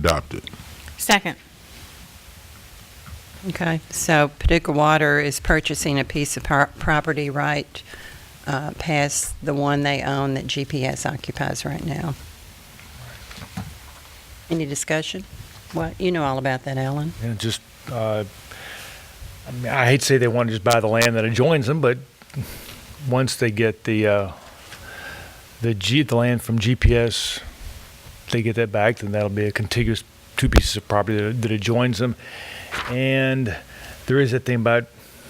adopted. Second. Okay, so Paducah Water is purchasing a piece of par- property right uh, past the one they own that GPS occupies right now. Any discussion? What, you know all about that, Alan? And just, uh, I mean, I hate to say they want to just buy the land that adjoins them, but once they get the, uh, the G, the land from GPS, they get that back, then that'll be a contiguous two pieces of property that, that adjoins them. And there is that thing about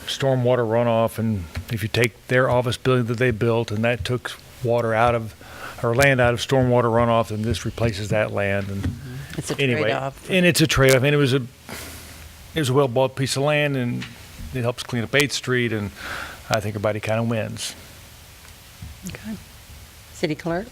stormwater runoff, and if you take their office building that they built, and that took water out of, or land out of stormwater runoff, and this replaces that land, and Mm-hmm. It's a anyway, trade-off. and it's a trade-off, and it was a it was a well-bought piece of land, and it helps clean up Eighth Street, and I think everybody kind of wins. Okay. City Clerk?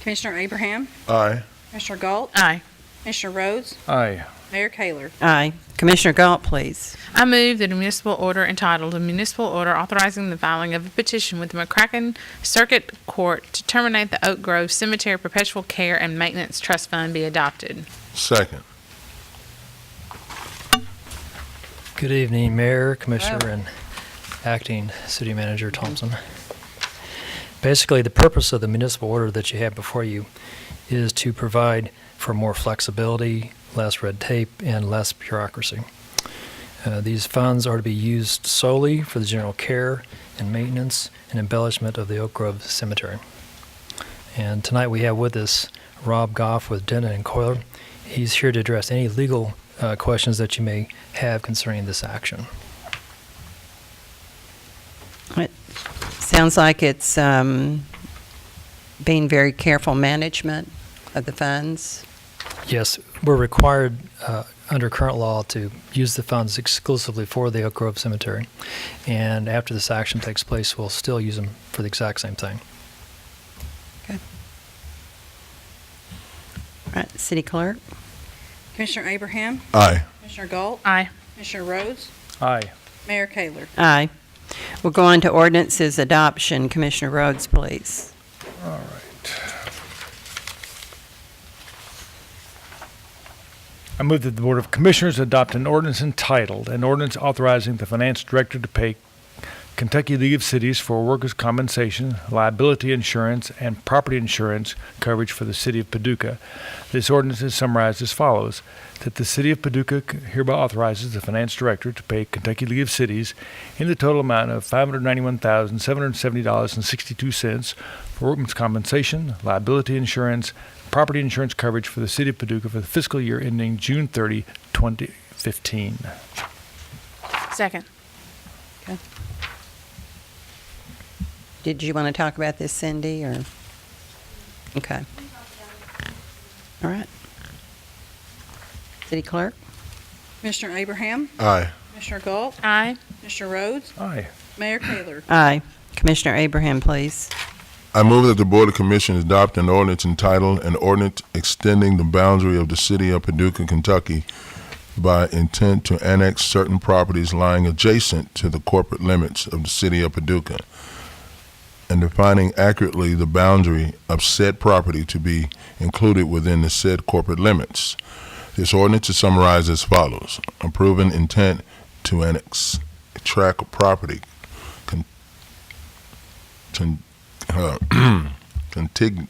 Commissioner Abraham, Aye. Commissioner Galt, Aye. Commissioner Rhodes, Aye. Mayor Kayler. Aye. Commissioner Galt, please. I move that a municipal order entitled, "A Municipal Order Authorizing the Filing of a Petition with the McCracken Circuit Court to Terminate the Oak Grove Cemetery Perpetual Care and Maintenance Trust Fund" be adopted. Second. Good evening, Mayor, Commissioner, and Acting City Manager Thompson. Basically, the purpose of the municipal order that you have before you is to provide for more flexibility, less red tape, and less bureaucracy. Uh, These funds are to be used solely for the general care and maintenance and embellishment of the Oak Grove Cemetery. And tonight we have with us Rob Goff with Denton and Coiler. He's here to address any legal uh, questions that you may have concerning this action. It sounds like it's um, being very careful management of the funds. Yes, we're required uh, under current law to use the funds exclusively for the Oak Grove Cemetery. And after this action takes place, we'll still use them for the exact same thing. All right, City Clerk? Commissioner Abraham, Aye. Commissioner Galt, Aye. Commissioner Rhodes, Aye. Mayor Kayler. Aye. We'll go on to ordinances adoption. Commissioner Rhodes, please. I move that the Board of Commissioners adopt an ordinance entitled, an ordinance authorizing the finance director to pay Kentucky League of Cities for workers' compensation, liability insurance, and property insurance coverage for the city of Paducah. This ordinance is summarized as follows, that the city of Paducah hereby authorizes the finance director to pay Kentucky League of Cities in the total amount of $591,770.62 for workmen's compensation, liability insurance, property insurance coverage for the city of Paducah for the fiscal year ending June 30, 2015. Second. Did you want to talk about this, Cindy, or? Okay. All right. City Clerk? Commissioner Abraham, Aye. Commissioner Galt, Aye. Commissioner Rhodes, Aye. Mayor Kayler. Aye. Commissioner Abraham, please. I move that the Board of Commissioners adopt an ordinance entitled, an ordinance extending the boundary of the city of Paducah, Kentucky by intent to annex certain properties lying adjacent to the corporate limits of the city of Paducah and defining accurately the boundary of said property to be included within the said corporate limits. This ordinance is summarized as follows. Approving intent to annex a tract of property con- con- uh, contiguous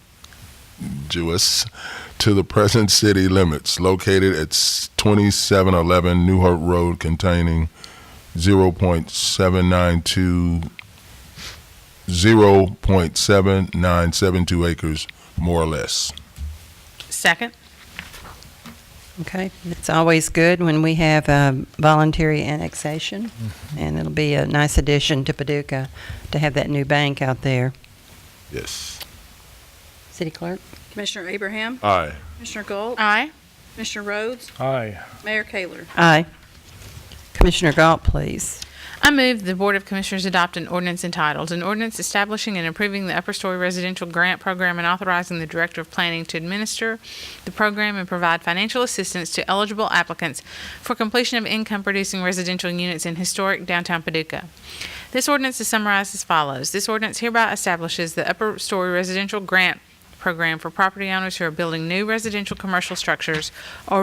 to the present city limits located at s- 2711 Newhart Road containing 0.792 0.7972 acres more or less. Second. Okay. It's always good when we have um, voluntary annexation, and it'll be a nice addition to Paducah to have that new bank out there. Yes. City Clerk? Commissioner Abraham, Aye. Commissioner Galt, Aye. Commissioner Rhodes, Aye. Mayor Kayler. Aye. Commissioner Galt, please. I move the Board of Commissioners adopt an ordinance entitled, an ordinance establishing and approving the upper story residential grant program and authorizing the Director of Planning to administer the program and provide financial assistance to eligible applicants for completion of income-producing residential units in historic downtown Paducah. This ordinance is summarized as follows. This ordinance hereby establishes the upper story residential grant program for property owners who are building new residential commercial structures or